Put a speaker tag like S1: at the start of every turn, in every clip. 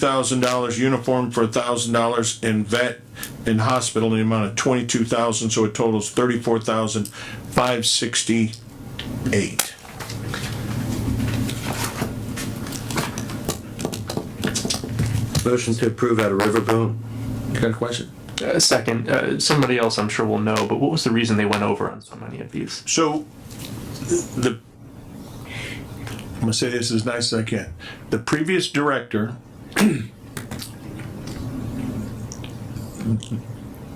S1: thousand dollars uniform for a thousand dollars in vet and hospital in the amount of twenty-two thousand, so it totals thirty-four thousand five sixty-eight.
S2: Motion to approve out of Riverboat.
S3: Got a question?
S4: Uh, Second, uh, somebody else I'm sure will know, but what was the reason they went over on so many of these?
S1: So, the, I'm gonna say this as nice as I can. The previous director,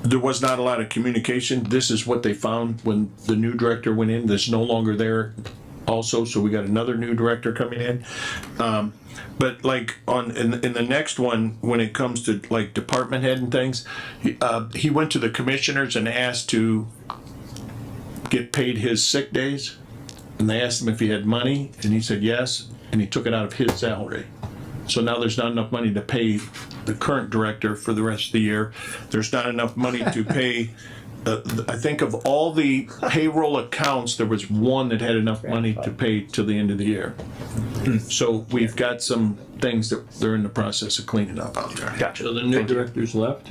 S1: there was not a lot of communication. This is what they found when the new director went in, that's no longer there also, so we got another new director coming in. Um, but like on, in, in the next one, when it comes to like department head and things, he, uh, he went to the commissioners and asked to get paid his sick days. And they asked him if he had money, and he said yes, and he took it out of his salary. So now there's not enough money to pay the current director for the rest of the year. There's not enough money to pay, uh, I think of all the payroll accounts, there was one that had enough money to pay till the end of the year. So we've got some things that they're in the process of cleaning up out there.
S4: Gotcha.
S2: So the new
S4: Thank you.
S2: director's left.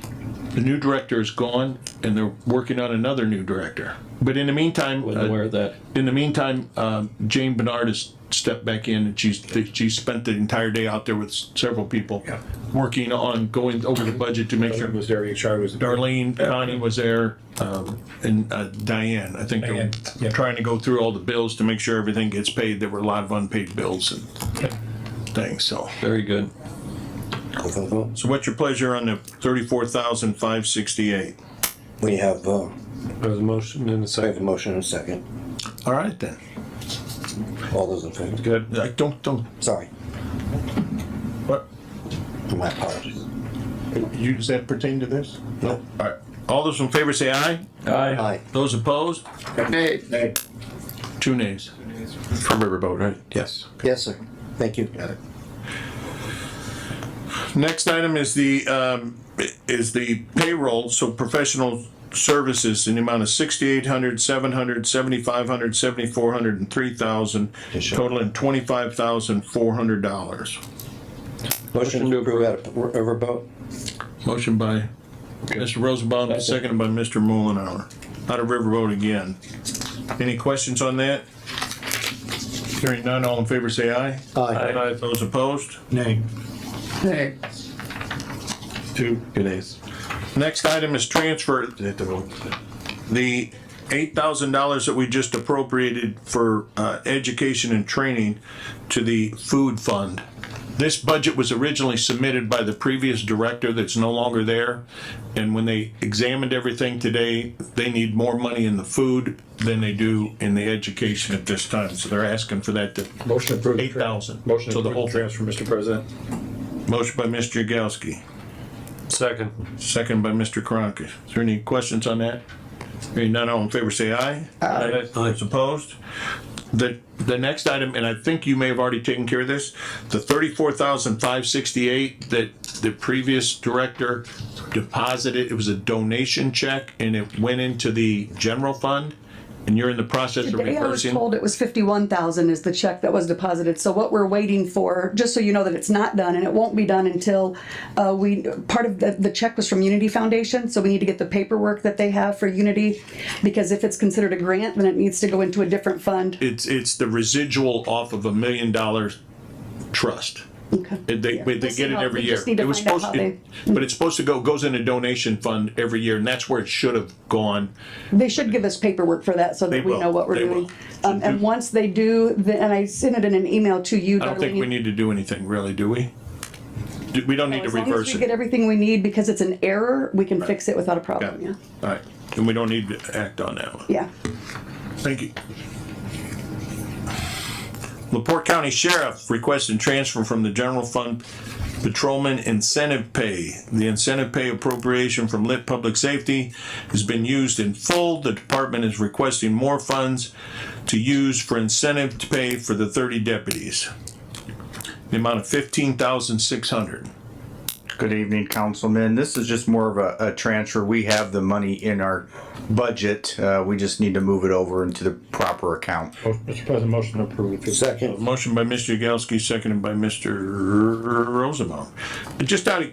S1: The new director is gone, and they're working on another new director. But in the meantime.
S2: Wasn't
S1: uh,
S2: aware of that.
S1: in the meantime, um, Jane Bernard has stepped back in and she's, she spent the entire day out there with several people. Working on going over the budget to make sure,
S5: was there, HR was.
S1: Darlene, Connie was there, um, and uh, Diane, I think. they were
S5: Diane, yeah.
S1: Trying to go through all the bills to make sure everything gets paid. There were a lot of unpaid bills and things, so.
S2: Very good.
S1: So what's your pleasure on the thirty-four thousand five sixty-eight?
S6: We have, uh,
S2: There's a motion and
S6: we have
S2: a
S6: a
S2: second.
S6: motion and a second.
S1: All right then.
S6: All those in favor?
S2: Good.
S1: Uh, Don't, don't,
S6: Sorry,
S1: what?
S6: my apologies.
S1: You, does that pertain to this? No. All right. All those in favor say aye.
S2: Aye.
S6: Aye.
S1: Those opposed? Two nays.
S3: From Riverboat, right?
S1: Yes.
S6: Yes, sir. Thank you.
S1: Next item is the, um, is the payroll, so professional services in the amount of sixty-eight hundred, seven hundred, seventy-five hundred, seventy-four hundred and three thousand,
S6: Yes, sir.
S1: totaling twenty-five thousand, four hundred dollars.
S6: Motion to approve out of Riverboat?
S1: Motion by Mr. Rosenbaum, seconded by Mr. Mullenhour. Out of Riverboat again. Any questions on that? Hearing none, all in favor say aye.
S6: Aye.
S1: Those opposed?
S5: Nay.
S1: Two.
S2: Good days.
S1: Next item is transfer, the eight thousand dollars that we just appropriated for, uh, education and training to the food fund. This budget was originally submitted by the previous director that's no longer there. And when they examined everything today, they need more money in the food than they do in the education at this time. So they're asking for that to,
S5: Motion approved.
S1: eight thousand.
S5: Motion
S1: So the whole
S5: approved
S1: thing.
S5: transfer, Mr. President.
S1: Motion by Mr. Yagowski.
S2: Second.
S1: Second by Mr. Karanka. Is there any questions on that? Hearing none, all in favor, say aye.
S2: Aye.
S1: Those opposed? The, the next item, and I think you may have already taken care of this, the thirty-four thousand five sixty-eight that the previous director deposited, it was a donation check and it went into the general fund. And you're in the process of
S7: Today I was
S1: reversing.
S7: told it was fifty-one thousand is the check that was deposited, so what we're waiting for, just so you know that it's not done, and it won't be done until, uh, we, part of, the, the check was from Unity Foundation, so we need to get the paperwork that they have for Unity, because if it's considered a grant, then it needs to go into a different fund.
S1: It's, it's the residual off of a million dollar trust.
S7: Okay.
S1: They, they
S7: We'll see
S1: get it
S7: how-
S1: every
S7: we
S1: year.
S7: just need to
S1: It was
S7: find out
S1: supposed,
S7: how
S1: it- but it's supposed to go, goes in a donation fund every year, and that's where it should have gone.
S7: They should give us paperwork for that, so
S1: They
S7: that we
S1: will.
S7: know what we're
S1: They
S7: doing.
S1: will.
S7: Um, and once they do, the- and I sent it in an email to you.
S1: I don't think we need to do anything really, do we? Do- We don't need to
S7: As long as
S1: reverse
S7: we get
S1: it.
S7: everything we need, because it's an error, we can fix it without a
S1: Got
S7: problem,
S1: it.
S7: yeah.
S1: All right, and we don't need to act on that one.
S7: Yeah.
S1: Thank you. Laporte County Sheriff requesting transfer from the general fund patrolman incentive pay. The incentive pay appropriation from lit public safety has been used in full. The department is requesting more funds to use for incentive to pay for the thirty deputies. The amount of fifteen thousand six hundred.
S5: Good evening, Councilman. This is just more of a, a transfer. We have the money in our budget. Uh, we just need to move it over into the proper account.
S2: Mr. President, motion approved.
S6: Second.
S1: Motion by Mr. Yagowski, seconded by Mr. Rosenbaum. Just out of